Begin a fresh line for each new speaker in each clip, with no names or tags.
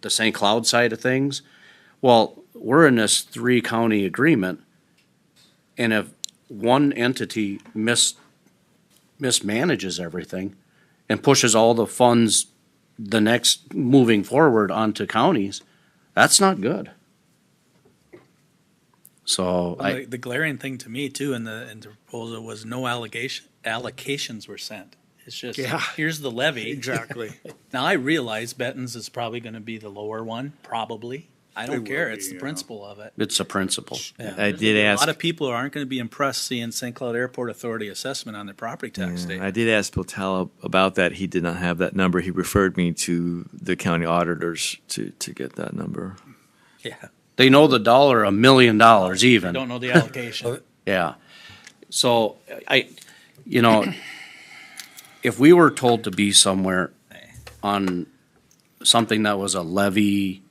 the St. Cloud side of things. Well, we're in this three county agreement. And if one entity mis- mismanages everything and pushes all the funds the next, moving forward onto counties, that's not good. So
Well,
I,
The the glaring thing to me too in the, in the proposal was no allegation, allocations were sent. It's just,
Yeah.
here's the levy.
Exactly.
Now, I realize Benton's is probably gonna be the lower one, probably. I don't
It
care.
will
It's
be,
the
yeah.
principle of it.
it's a principle.
I did
A
ask.
lot of people aren't gonna be impressed seeing St. Cloud Airport Authority assessment on their property tax
Yeah,
statement.
I did ask Botel about that. He did not have that number. He referred me to the county auditors to, to get that number.
Yeah,
They know the dollar a million dollars even.
I don't know the allocation.
Yeah. So I, you know, if we were told to be somewhere on something that was a levy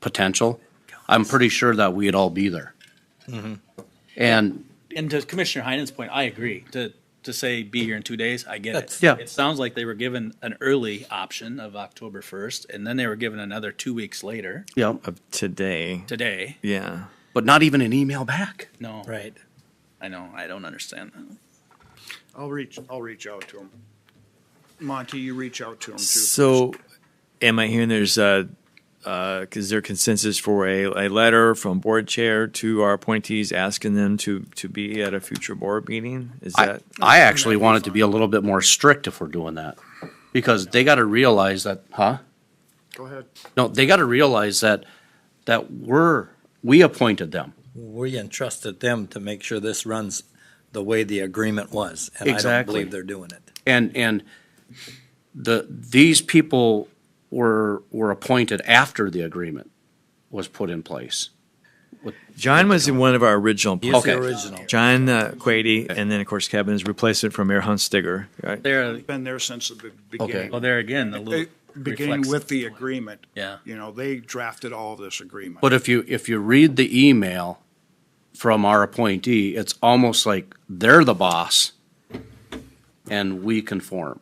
potential, I'm pretty sure that we'd all be there. And
And to Commissioner Heinen's point, I agree. To, to say be here in two days, I get it.
That's-
Yeah.
It sounds like they were given an early option of October first, and then they were given another two weeks later,
yeah,
Of today.
today.
Yeah.
but not even an email back.
No. Right. I know, I don't understand that.
I'll reach, I'll reach out to him. Monty, you reach out to him too.
So, am I hearing there's a, uh, is there consensus for a, a letter from board chair to our appointees asking them to, to be at a future board meeting? Is
I,
that?
I actually want it to be a little bit more strict if we're doing that. Because they gotta realize that, huh?
Go ahead.
No, they gotta realize that, that we're, we appointed them.
We entrusted them to make sure this runs the way the agreement was, and I don't
Exactly.
believe they're doing it.
And, and the, these people were, were appointed after the agreement was put in place.
John was in one of our original.
Use
Okay.
the original.
John uh, Quady, and then of course Kevin is replacement from Mayor Hunt Stigger. Right?
There,
Been there since the be-
Uh, well,
beginning.
there again, the
They-
little.
Beginning
reflects-
with the agreement.
Yeah.
You know, they drafted all this agreement.
But if you, if you read the email from our appointee, it's almost like they're the boss and we conform.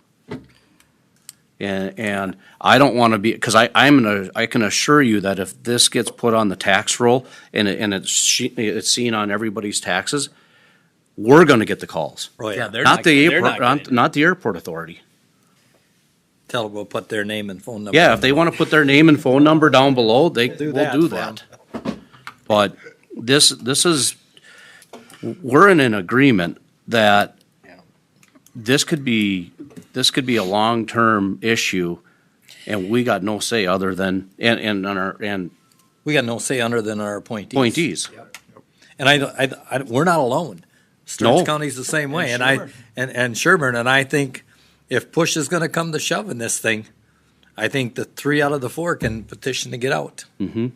And, and I don't want to be, because I, I'm gonna, I can assure you that if this gets put on the tax roll and it, and it's, she- it's seen on everybody's taxes, we're gonna get the calls.
Oh,
Yeah,
yeah.
they're
Not the
they're
airport,
not
not,
getting
not the airport authority.
Tell them we'll put their name and phone number.
Yeah, if they want to put their name and phone number down below, they
Do
will
that
do
for 'em.
that. But this, this is, we're in an agreement that this could be, this could be a long-term issue and we got no say other than, and, and, on our- and
We got no say under than our appointees.
appointees.
And I, don't- I, I, don't- we're not alone. Stearns
No.
County's the same way,
And
and I,
Sherburne.
and, and Sherburne, and I think if push is gonna come to shove in this thing, I think the three out of the four can petition to get out.
hmm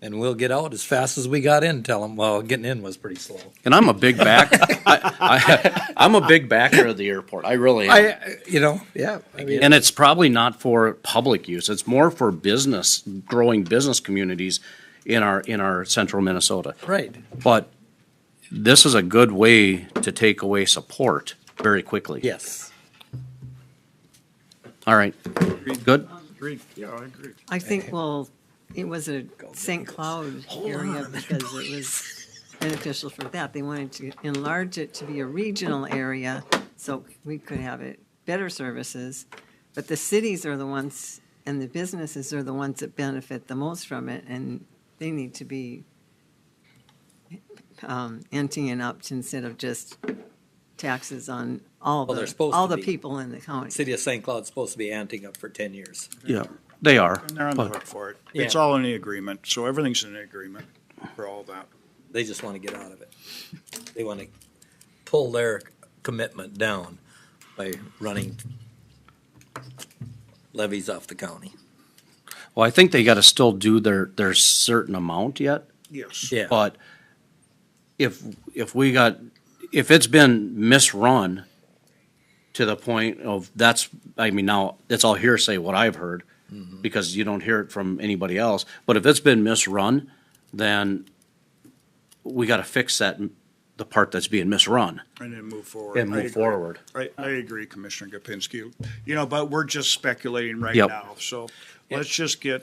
And we'll get out as fast as we got in, tell them, well, getting in was pretty slow.
And I'm a big back, I, I, I'm a big backer of the airport. I really am.
I, you know, yeah. I mean,
And it's probably not for public use. It's more for business, growing business communities in our, in our central Minnesota.
Right.
But this is a good way to take away support very quickly.
Yes.
All right. Good.
Agreed. Yeah, I agree.
I think, well, it was a St. Cloud area because it was beneficial for that. They wanted to enlarge it to be a regional area, so we could have it, better services. But the cities are the ones, and the businesses are the ones that benefit the most from it, and they need to be um, emptying it up instead of just taxes on all
Well, they're
the,
supposed
all
to
the
be.
people in the county.
City of St. Cloud's supposed to be anting up for ten years.
Yeah, they are.
And they're on the
But
hook for it. It's
Yeah.
all in the agreement, so everything's in the agreement for all that.
They just want to get out of it. They want to pull their commitment down by running levies off the county.
Well, I think they got to still do their, their certain amount yet.
Yes.
Yeah.
But if, if we got, if it's been misrun to the point of that's, I mean, now, it's all hearsay what I've heard, because you don't hear it from anybody else, but if it's been misrun, then we gotta fix that, the part that's being misrun
And then move forward.
and
I agree.
move forward.
I, I agree, Commissioner Gopinski. You know, but we're just speculating right
Yep.
now, so let's just get